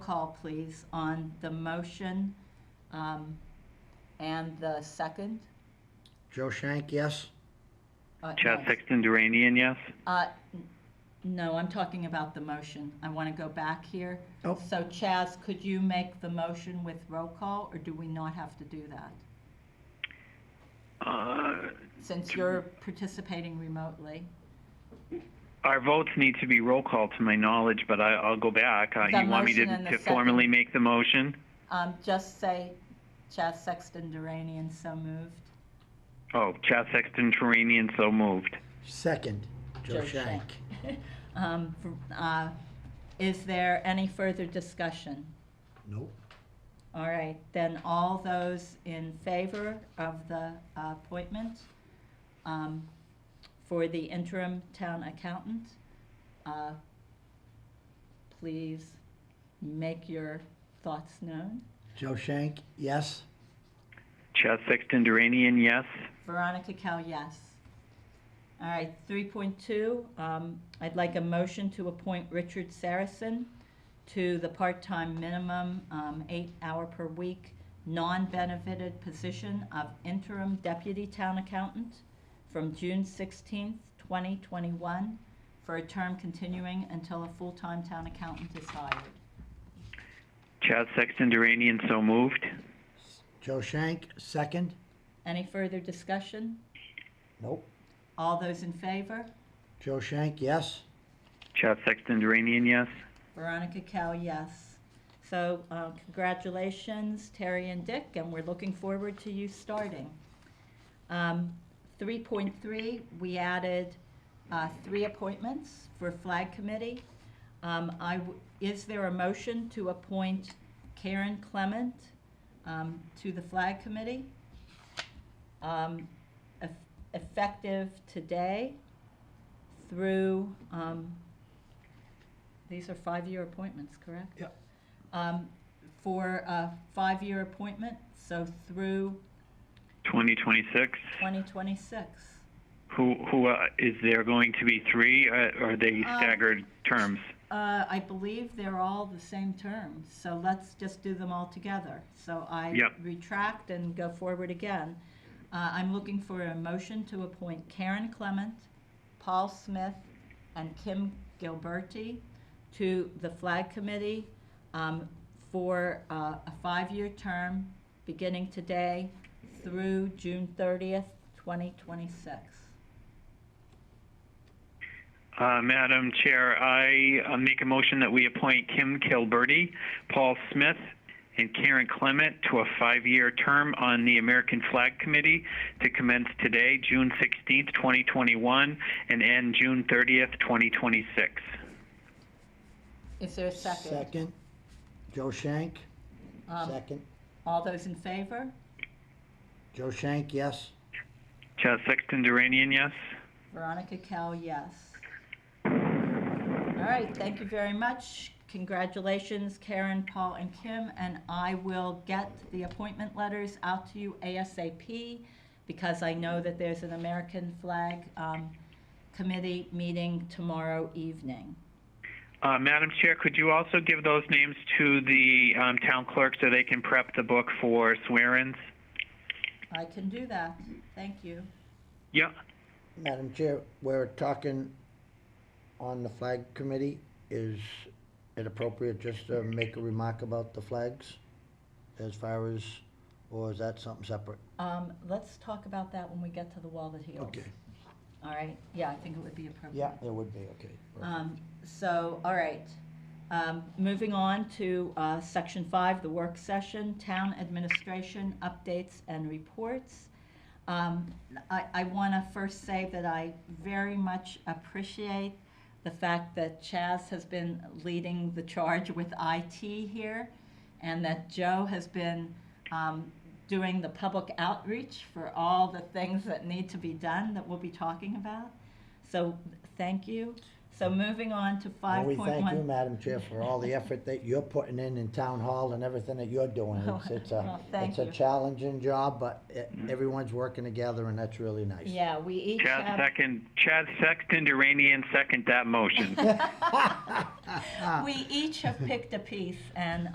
call, please, on the motion um, and the second? Joe Shank, yes. Uh, Chad no. Sexton Duranian, yes. Uh, n- No, I'm talking about the motion. I want to go back here. Oh. So Chaz, could you make the motion with roll call, or do we not have to do that? Uh, Since you're participating remotely. our votes need to be roll call to my knowledge, but I, I'll go back. Uh, The you want me to, motion and the to second. formally make the motion? Um, Just say Chaz Sexton Duranian, so moved. Oh, Chad Sexton Duranian, so moved. Second, Joe Joe Shank. Um, for- uh, Is there any further discussion? Nope. All right, then all those in favor of the appointment um, for the interim town accountant, uh, please make your thoughts known. Joe Shank, yes. Chad Sexton Duranian, yes. Veronica Cal, yes. All right, 3.2, um, I'd like a motion to appoint Richard Saracen to the part-time minimum, um, eight-hour per week, non-benefited position of interim deputy town accountant from June 16th, 2021, for a term continuing until a full-time town accountant is hired. Chad Sexton Duranian, so moved. Joe Shank, second. Any further discussion? Nope. All those in favor? Joe Shank, yes. Chad Sexton Duranian, yes. Veronica Cal, yes. So uh, congratulations, Terry and Dick, and we're looking forward to you starting. Um, 3.3, we added uh, three appointments for Flag Committee. Um, I w- Is there a motion to appoint Karen Clement um, to the Flag Committee? um, eff- Effective today through, um, these are five-year appointments, correct? Yep. Um, For a five-year appointment, so through 2026. 2026. Who, who uh, is there going to be three? Uh, are they Um, staggered terms? Uh, I believe they're all the same terms, so let's just do them all together. So I Yep. retract and go forward again. Uh, I'm looking for a motion to appoint Karen Clement, Paul Smith, and Kim Gilberti to the Flag Committee um, for uh, a five-year term beginning today through June 30th, 2026. Uh, Madam Chair, I uh, make a motion that we appoint Kim Kilberty, Paul Smith, and Karen Clement to a five-year term on the American Flag Committee to commence today, June 16th, 2021, and end June 30th, 2026. Is there a second? Second, Joe Shank, Um, second. All those in favor? Joe Shank, yes. Chad Sexton Duranian, yes. Veronica Cal, yes. All right, thank you very much. Congratulations, Karen, Paul, and Kim, and I will get the appointment letters out to you ASAP because I know that there's an American Flag um, Committee meeting tomorrow evening. Uh, Madam Chair, could you also give those names to the um, town clerk so they can prep the book for swear-ins? I can do that. Thank you. Yeah. Madam Chair, we're talking on the flag committee. Is it appropriate just to make a remark about the flags as far as, or is that something separate? Um, let's talk about that when we get to the wall that heals. Okay. All right. Yeah, I think it would be appropriate. Yeah, it would be, okay. Um, so, all right. Um, moving on to, uh, section five, the work session, town administration updates and reports. Um, I, I wanna first say that I very much appreciate the fact that Chaz has been leading the charge with IT here and that Joe has been, um, doing the public outreach for all the things that need to be done that we'll be talking about. So, thank you. So moving on to And five we point one. thank you, Madam Chair, for all the effort that you're putting in in town hall and everything that you're doing. It's, it's a, Well, thank it's a you. challenging job, but e- everyone's working together and that's really nice. Yeah, we each Chad have, second, Chad Sexton Duranian second that motion. we each have picked a piece, and